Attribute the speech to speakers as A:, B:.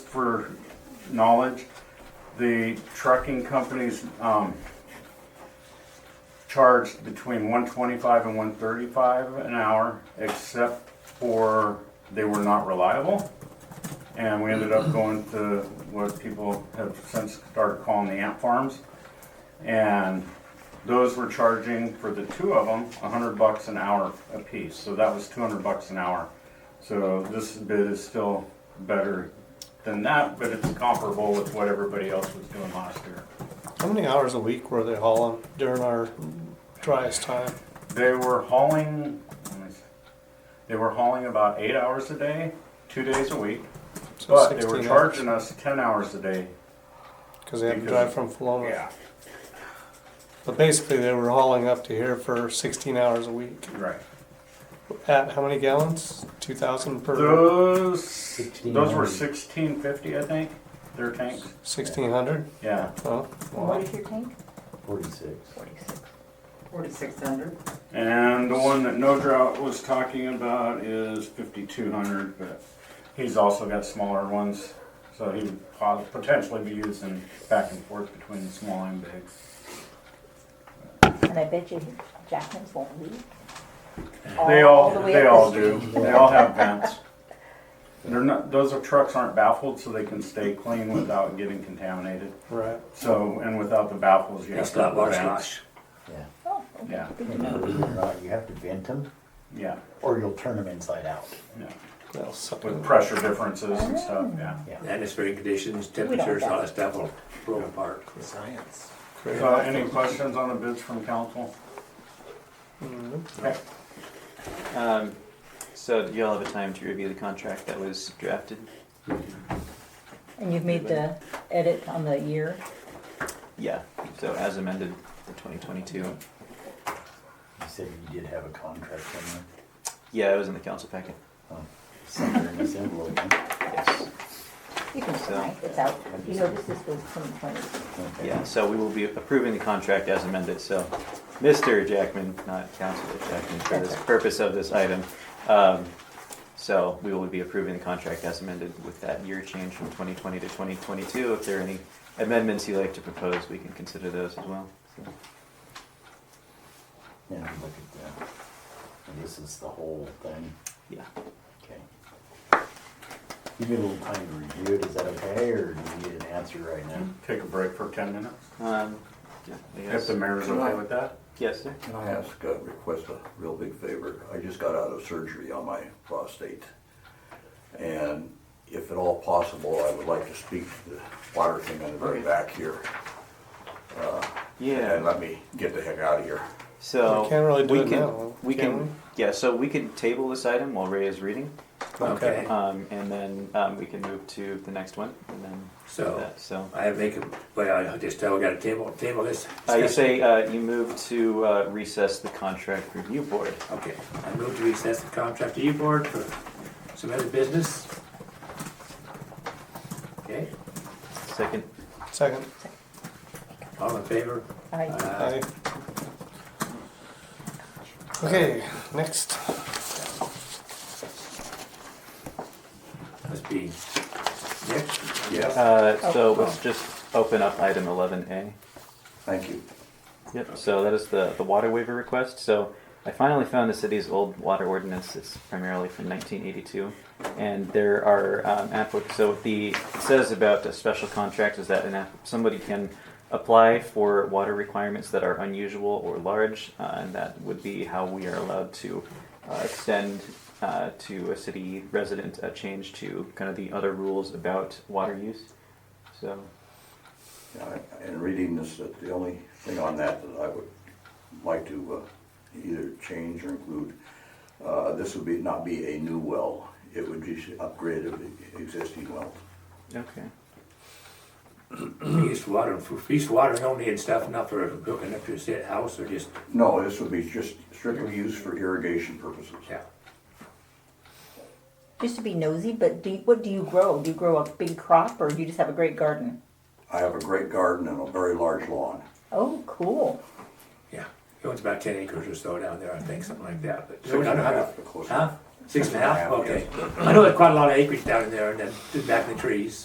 A: for knowledge, the trucking companies, um, charged between one twenty-five and one thirty-five an hour, except for they were not reliable. And we ended up going to what people have since started calling the ant farms. And those were charging for the two of them, a hundred bucks an hour apiece, so that was two hundred bucks an hour. So this bid is still better than that, but it's comparable with what everybody else was doing last year.
B: How many hours a week were they hauling during our driest time?
A: They were hauling, let me see. they were hauling about eight hours a day, two days a week,
B: So
A: but they were
B: 16
A: charging us ten hours a day.
B: Because they had to
A: because-
B: drive from Philomath. But basically, they were hauling up to here for 16 hours a week.
A: Right.
B: At how many gallons? 2,000 per
A: Those, those were
C: 1600.
A: sixteen fifty, I think, their tanks,
B: 1,600?
A: yeah.
B: Oh,
D: What is your tank?
C: Forty-six.
D: Forty-six. Forty-six hundred?
A: And the one that No Drought was talking about is fifty-two hundred, but he's also got smaller ones, so he would po- potentially be using back and forth between the small and big.
E: And I bet you Jackman's won't leave.
A: They all,
D: the way
A: they
D: up
A: all
D: the
A: do, they all have vents. They're not, those are- trucks aren't baffled, so they can stay clean without getting contaminated,
B: right.
A: so, and without the baffles, you have
F: It's
A: to have
F: got
A: the
F: large
A: vents.
F: knots.
C: Yeah.
E: Oh,
A: Yeah,
E: good to
C: And
E: know.
C: believe it or not, you have to vent them
A: yeah,
C: or you'll turn them inside out.
A: yeah,
B: That'll suck
A: with
B: it.
A: pressure differences and stuff, yeah.
F: Atmospheric conditions, temperatures, all that stuff will blow apart.
C: Science.
B: Great.
A: So Uh, any questions on the bids from council?
B: Mhm.
A: Okay.
G: Um, so you all have a time to review the contract that was drafted?
E: And you've made the edit on the year.
G: Yeah. So as amended for twenty twenty-two.
C: You said you did have a contract in there, um,
G: Yeah, it was in the council packet.
C: somewhere in this envelope. huh?
G: Yes.
E: You can sign, it's out. You know, this is for 2020.
C: Okay.
G: Yeah, so we will be approving the contract as amended, so Mr. Jackman, not Councilor Jackman, for the purpose of this item. Um, so we will be approving the contract as amended with that year change from twenty twenty to twenty twenty-two. If there are any amendments you'd like to propose, we can consider those as well. So-
C: Yeah, look at that. And this is the whole thing,
G: Yeah.
C: okay. Give me a little time to review it, is that okay, or do you need an answer right now?
A: Take a break for ten minutes,
G: Um, yeah, I
A: if
G: guess.
A: the mayor's okay with that.
G: Yes, sir.
H: Can I ask, uh, request a real big favor? I just got out of surgery on my prostate. And if at all possible, I would like to speak to the water thing on the very
G: Okay.
H: back here.
G: Yeah.
H: And let me get the heck out of here.
G: So
B: We can't really do
G: we
B: it
G: can,
B: now,
G: We
B: can
G: can, yeah. So we can table this item while Ray is reading,
F: Okay.
G: um, and then um, we can move to the next one, and then do
F: So-
G: that. So
F: I make a, well, I just tell, we got a table, table this.
G: uh, you say uh, you move to uh, recess the contract review board.
F: Okay, I move to recess the contract to you board for some other business. Okay,
G: Second.
B: Second.
F: all in favor?
E: Aye.
F: Uh,
B: Aye. Okay, next.
F: Must be Nick.
H: Yes,
G: Uh,
B: Oh.
G: so let's just open up item eleven A.
H: thank you.
G: Yep, so that is the, the water waiver request. So I finally found the city's old water ordinance. It's primarily from 1982. And there are um, applic- so what the it says about a special contract is that an app- somebody can apply for water requirements that are unusual or large, uh, and that would be how we are allowed to uh, extend uh, to a city resident a change to kind of the other rules about water use. So
H: Yeah, I- In reading this, that the only thing on that that I would like to uh, either change or include, uh, this would be, not be a new well. It would just upgrade of the existing well.
G: okay.
F: We used water, for used water only and stuff, not for hooking up to a set house or just,
H: No, this would be just strictly used for irrigation purposes.
F: yeah.
E: Just to be nosy, but do you, what do you grow? Do you grow a big crop or you just have a great garden?
H: I have a great garden and a very large lawn.
E: Oh, cool.
F: Yeah, it owns about ten acres or so down there, I think, something like that, but.
H: Six and a half,
F: Huh?
H: close.
F: Six and a half,
H: Six and a
F: okay. I know there's quite a lot of acreage down in there and then back in the trees.